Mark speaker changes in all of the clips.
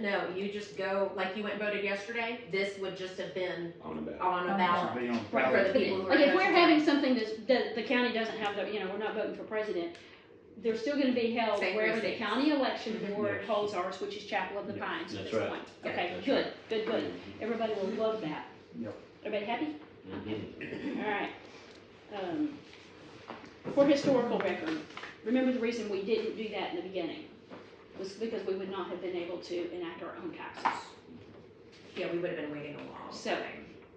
Speaker 1: No, you just go, like you went and voted yesterday, this would just have been
Speaker 2: on about.
Speaker 1: on a
Speaker 3: Oh.
Speaker 1: ballot.
Speaker 4: Should be on
Speaker 1: Right, for the
Speaker 4: ballot.
Speaker 1: people who are.
Speaker 3: Like if we're
Speaker 1: voting.
Speaker 3: having something that's, that the county doesn't have, the you know, we're not voting for president, they're still gonna be held
Speaker 1: Same
Speaker 3: wherever the
Speaker 1: precincts.
Speaker 3: county election
Speaker 1: Mhm.
Speaker 3: board
Speaker 5: Yes.
Speaker 3: holds ours, which is Chapel of the
Speaker 5: Yeah,
Speaker 3: Pines at
Speaker 5: that's
Speaker 3: this
Speaker 5: right.
Speaker 3: point. Okay,
Speaker 5: That's
Speaker 3: good, good, good.
Speaker 5: Mhm.
Speaker 3: Everybody will love that.
Speaker 4: Yep.
Speaker 3: Everybody happy?
Speaker 5: Mhm.
Speaker 3: All right. Um, For historical record, remember the reason we didn't do that in the beginning was because we would not have been able to enact our own taxes.
Speaker 1: Yeah, we would have been waiting a long
Speaker 3: So-
Speaker 1: time.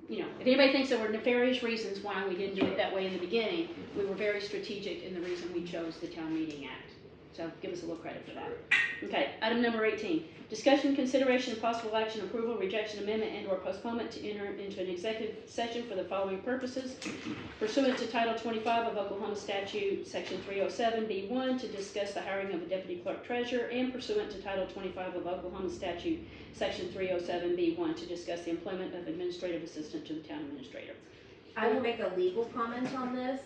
Speaker 3: you know, if anybody thinks there were nefarious reasons why we didn't do it that way in the beginning, we were very strategic in the reason we chose the Town Meeting Act. So give us a little credit for that. Okay, item number eighteen, discussion, consideration, and possible action, approval, rejection, amendment, and or postponement to enter into an executive session for the following purposes pursuant to Title twenty-five of Oklahoma statute, section three oh seven B one, to discuss the hiring of a deputy clerk treasurer and pursuant to Title twenty-five of Oklahoma statute, Section 307B1 to discuss the employment of administrative assistant to the town administrator.
Speaker 1: I will make a legal comment on this.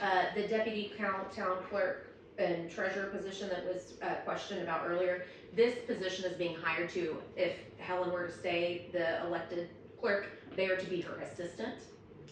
Speaker 1: Uh, the deputy count, town clerk and treasurer position that was, uh, questioned about earlier, this position is being hired to, if Helen were to stay, the elected clerk, they are to be her assistant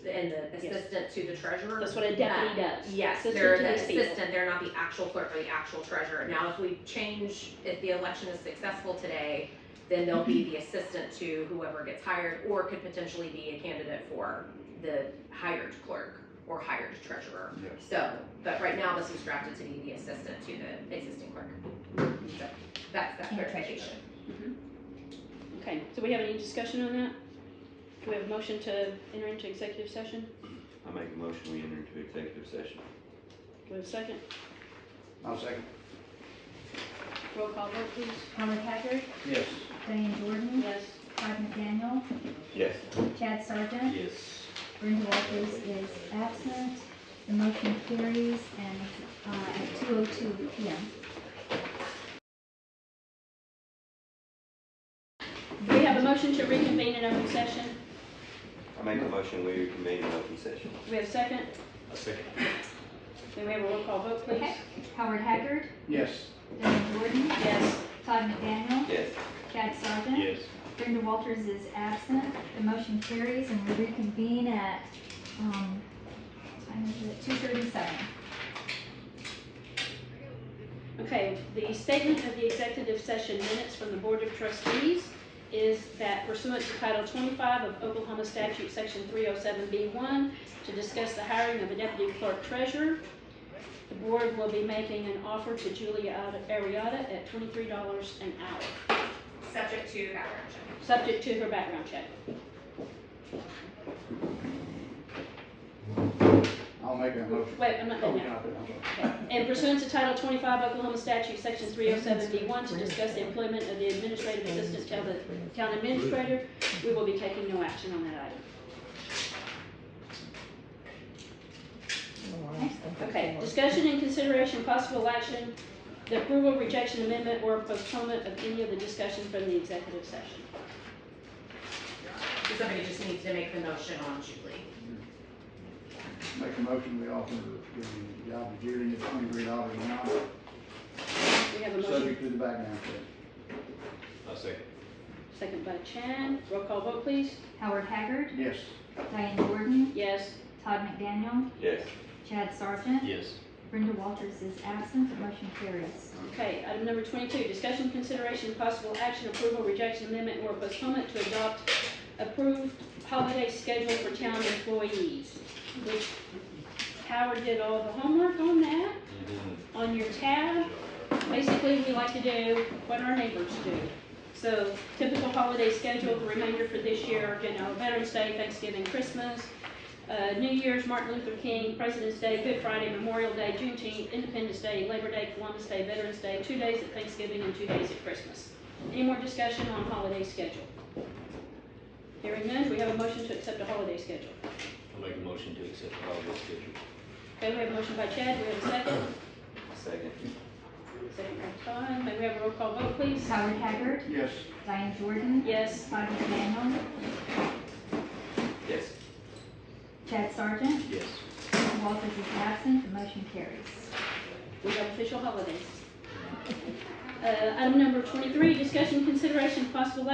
Speaker 1: and the
Speaker 3: Yes.
Speaker 1: assistant to the treasurer. Uh,
Speaker 3: That's what a deputy does.
Speaker 1: Yes,
Speaker 3: Assistant
Speaker 1: they're
Speaker 3: to
Speaker 1: the
Speaker 3: these people.
Speaker 1: assistant, they're not the actual clerk or the actual treasurer. Now, if we change, if the election is successful today, then they'll be the assistant to whoever gets hired, or could potentially be a candidate for the hired clerk or hired treasurer.
Speaker 4: Yes.
Speaker 1: So, but right now, this is drafted to be the assistant to the existing clerk. So, That's that clarification.
Speaker 3: Okay, so we have any discussion on that? Do we have a motion to enter into executive session?
Speaker 2: I make a motion, we enter into executive session.
Speaker 3: Do we have a second?
Speaker 4: I'll second.
Speaker 3: Roll call vote, please.
Speaker 6: Howard Haggard,
Speaker 4: Yes.
Speaker 6: Diane Jordan,
Speaker 3: Yes.
Speaker 6: Todd McDaniel,
Speaker 2: Yes.
Speaker 6: Chad Sargent,
Speaker 5: Yes.
Speaker 6: Brenda Walters is absent. The motion carries and, uh, at two oh two P M.
Speaker 3: Do we have a motion to reconvene in open session?
Speaker 2: I make a motion, we convene an open session.
Speaker 3: Do we have a second?
Speaker 5: A second.
Speaker 3: Then we have a roll call vote, please.
Speaker 6: Okay. Howard Haggard,
Speaker 4: Yes.
Speaker 6: Diane Jordan,
Speaker 3: Yes.
Speaker 6: Todd McDaniel,
Speaker 2: Yes.
Speaker 6: Chad Sargent,
Speaker 5: Yes.
Speaker 6: Brenda Walters is absent. The motion carries and we reconvene at, um, what time is it? Two thirty-seven.
Speaker 3: Okay, the statement of the executive session minutes from the Board of Trustees is that pursuant to Title 25 of Oklahoma Statute, Section 307B1, to discuss the hiring of a deputy clerk treasurer, the board will be making an offer to Julia Arietta at $23 an hour,
Speaker 1: Subject to background check.
Speaker 3: subject to her background check.
Speaker 4: I'll make that motion.
Speaker 3: Wait, I'm not
Speaker 4: Oh,
Speaker 3: done
Speaker 4: yeah,
Speaker 3: yet.
Speaker 4: I'll do it. I'm sorry.
Speaker 3: And pursuant to Title 25 Oklahoma Statute, Section 307B1, to discuss the employment of the administrative assistant to the town administrator, we will be taking no action on that item. Okay, discussion and consideration, possible action, the approval, rejection, amendment, or postponement of any of the discussion from the executive session.
Speaker 1: So Somebody just needs to make the motion on Julie.
Speaker 4: Make a motion, we offer the job to Judy at twenty-three dollars an hour,
Speaker 3: We have a motion,
Speaker 4: subject to the background check.
Speaker 5: A second.
Speaker 3: second by Chad, roll call vote, please.
Speaker 6: Howard Haggard,
Speaker 4: Yes.
Speaker 6: Diane Jordan,
Speaker 3: Yes,
Speaker 6: Todd McDaniel,
Speaker 2: Yes.
Speaker 6: Chad Sargent,
Speaker 5: Yes.
Speaker 6: Brenda Walters is absent, the motion carries.
Speaker 3: okay, item number 22, discussion, consideration, possible action, approval, rejection, amendment, or postponement to adopt approved holiday schedule for town employees, which Howard did all the homework on that, on your tab. Basically, we like to do what our neighbors do. So typical holiday schedule, the remainder for this year, you know, Veterans Day, Thanksgiving, Christmas, uh, New Year's, Martin Luther King, President's Day, Good Friday, Memorial Day, Juneteenth, Independence Day, Labor Day, Columbus Day, Veterans Day, two days at Thanksgiving and two days at Christmas. Any more discussion on holiday schedule? Hearing none, do we have a motion to accept a holiday schedule?
Speaker 5: I'll make a motion to accept the holiday schedule.
Speaker 3: Okay, we have a motion by Chad, do we have a second?
Speaker 2: Second.
Speaker 3: Second by Todd, may we have a roll call vote, please?
Speaker 6: Howard Haggard,
Speaker 4: Yes.
Speaker 6: Diane Jordan,
Speaker 3: Yes,
Speaker 6: Todd McDaniel,
Speaker 2: Yes.
Speaker 6: Chad Sargent,
Speaker 5: Yes.
Speaker 6: Brenda Walters is absent, the motion carries.
Speaker 3: we have official holidays. Uh, item number twenty-three, discussion consideration possible